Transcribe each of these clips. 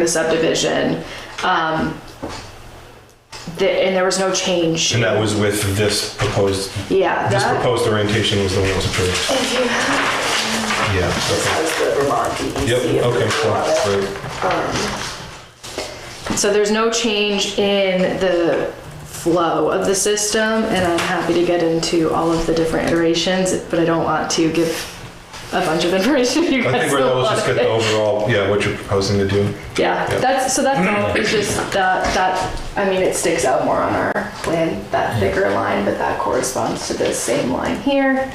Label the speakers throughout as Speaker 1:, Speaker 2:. Speaker 1: the subdivision. Um, the, and there was no change.
Speaker 2: And that was with this proposed,
Speaker 1: Yeah,
Speaker 2: this
Speaker 1: that,
Speaker 2: proposed orientation was the one that was approved.
Speaker 3: If you have,
Speaker 2: Yeah.
Speaker 3: this
Speaker 2: okay.
Speaker 3: has the Vermont E DEC.
Speaker 2: Yep, okay,
Speaker 3: approved
Speaker 2: cool,
Speaker 3: product.
Speaker 2: great.
Speaker 1: so there's no change in the flow of the system, and I'm happy to get into all of the different iterations, but I don't want to give a bunch of information. if You guys
Speaker 2: I think we're
Speaker 1: don't
Speaker 2: all
Speaker 1: want
Speaker 2: just get
Speaker 1: it.
Speaker 2: the overall, yeah, what you're proposing to do.
Speaker 1: Yeah,
Speaker 2: Yeah.
Speaker 1: that's, so that's all, it's just that, that, I mean, it sticks out more on our plan, that thicker line, but that corresponds to this same line here.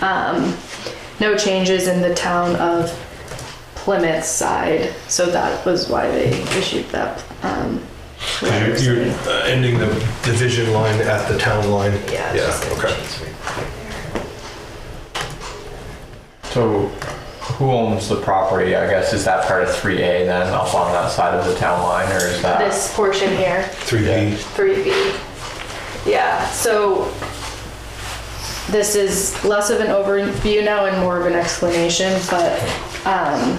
Speaker 1: Um, no changes in the town of Plymouth side, so that was why they issued that, um. letter.
Speaker 2: 'Cause You're you're, uh, ending the division line at the town line.
Speaker 3: Yeah, it's just
Speaker 2: Yeah,
Speaker 3: gonna
Speaker 2: okay.
Speaker 3: change
Speaker 4: So who owns the property, I guess? Is that part of 3A then, up on that side of the town line, or is that?
Speaker 1: This portion here,
Speaker 2: 3D.
Speaker 1: three B. Yeah, so this is less of an overview now and more of an explanation, but um,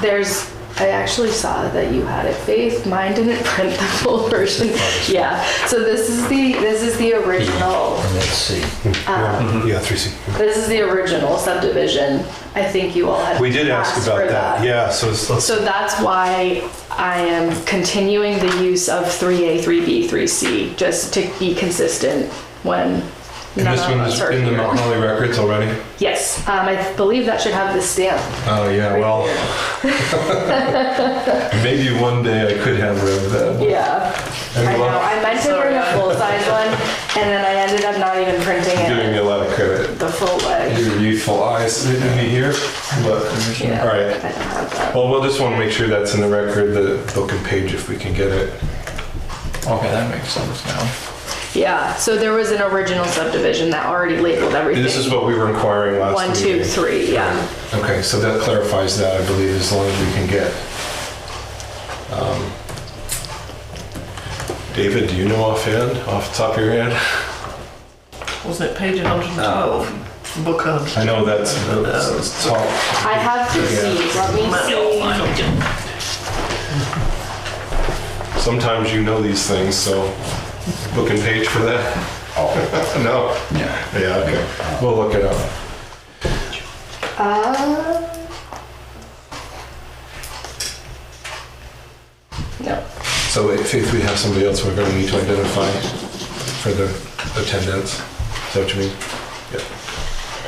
Speaker 1: there's, I actually saw that you had it, Faith. Mine didn't print the full version. Yeah, so this is the, this is the original, Um,
Speaker 5: And let's see.
Speaker 1: Uh-huh.
Speaker 2: Mm-hmm. Yeah, 3C.
Speaker 1: this is the original subdivision. I think you all had.
Speaker 2: We did ask
Speaker 1: asked for
Speaker 2: about that, yeah, so it's- let's,
Speaker 1: So that's why I am continuing the use of 3A, 3B, 3C, just to be consistent when
Speaker 2: and
Speaker 1: none
Speaker 2: this
Speaker 1: of
Speaker 2: one
Speaker 1: us
Speaker 2: is
Speaker 1: are
Speaker 2: in the Mount
Speaker 1: here.
Speaker 2: Holly records already?
Speaker 1: Yes, um, I believe that should have the stamp.
Speaker 2: Oh, yeah, well. Maybe one day I could have read that.
Speaker 1: Yeah. I
Speaker 2: And
Speaker 1: know,
Speaker 2: well,
Speaker 1: I meant to bring a full-size one, and then I ended up not even printing
Speaker 2: Giving me
Speaker 1: it
Speaker 2: a lot of credit.
Speaker 1: the full way.
Speaker 2: Your youthful eyes didn't be here, but,
Speaker 1: Yeah.
Speaker 2: all right.
Speaker 1: I don't have that.
Speaker 2: Well, we'll just want to make sure that's in the record, the book and page, if we can get it.
Speaker 4: Okay, that makes sense now.
Speaker 1: Yeah, so there was an original subdivision that already labeled everything.
Speaker 2: This is what we were inquiring last
Speaker 1: One, two,
Speaker 2: meeting.
Speaker 1: three, yeah.
Speaker 2: Okay, so that clarifies that, I believe, as long as we can get. Um, David, do you know offhand, off the top of your head?
Speaker 6: Was it page 112? Book on.
Speaker 2: I know that's, that's top.
Speaker 1: I have to see, let me see.
Speaker 2: Sometimes you know these things, so book and page for that? No? Yeah. Yeah, okay. We'll look it up.
Speaker 1: Uh, No.
Speaker 2: So wait, Faith, we have somebody else we're going to need to identify for the attendance. Is that what you mean?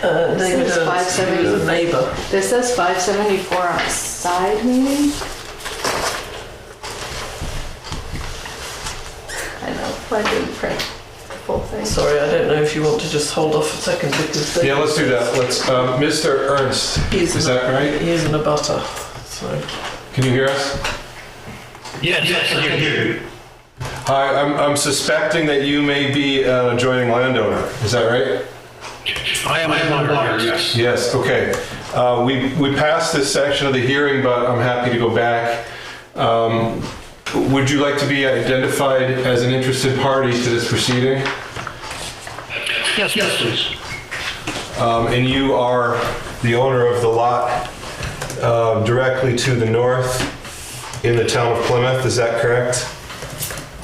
Speaker 6: Uh, David
Speaker 1: This is five
Speaker 6: Ernst, he was
Speaker 1: seventy.
Speaker 6: a neighbour.
Speaker 1: This says 574 on side meeting. I know, I didn't print the full thing.
Speaker 6: Sorry, I don't know if you want to just hold off a second because David
Speaker 2: Yeah, let's do that. Let's, um, Mr. Ernst,
Speaker 6: He's
Speaker 2: is
Speaker 6: an-
Speaker 2: that right?
Speaker 6: He is in a butter, so.
Speaker 2: Can you hear us?
Speaker 7: Yes, yes, I can hear you.
Speaker 2: Hi, I'm, I'm suspecting that you may be an adjoining landowner. Is that right?
Speaker 7: I am a moderator, yes.
Speaker 2: Yes, okay. Uh, we, we passed this section of the hearing, but I'm happy to go back. Um, would you like to be identified as an interested party to this proceeding?
Speaker 7: Yes, yes, please.
Speaker 2: Um, and you are the owner of the lot uh, directly to the north in the town of Plymouth, is that correct?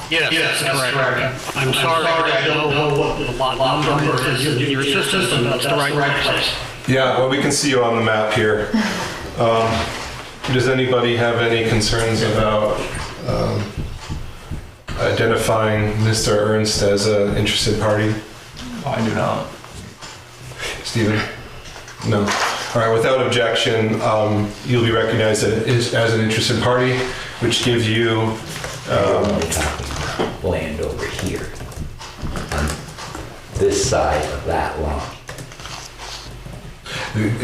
Speaker 7: Yes, that's correct. I'm sorry, I don't know what the lot number is in your system, but that's the right place.
Speaker 2: Yeah, well, we can see you on the map here. Um, Does anybody have any concerns about um, identifying Mr. Ernst as an interested party?
Speaker 4: I do not.
Speaker 2: Stephen? No. All right, without objection, um, you'll be recognized as as an interested party, which gives you
Speaker 5: Land over here. on This side of that line.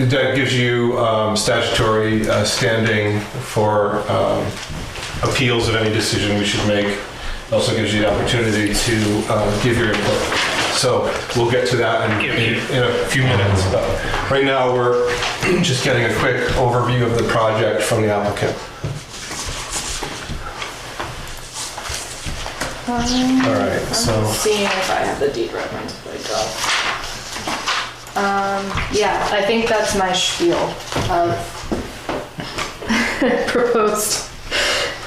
Speaker 2: That gives you um, statutory uh, standing for um, appeals of any decision we should make. Also gives you the opportunity to uh, give your input. So we'll get to that in, in, in a few minutes. But right now, we're just getting a quick overview of the project from the applicant.
Speaker 1: Um,
Speaker 2: All right,
Speaker 1: I'm
Speaker 2: so
Speaker 1: seeing if I have the deed reference, but I don't. Um, yeah, I think that's my spiel of proposed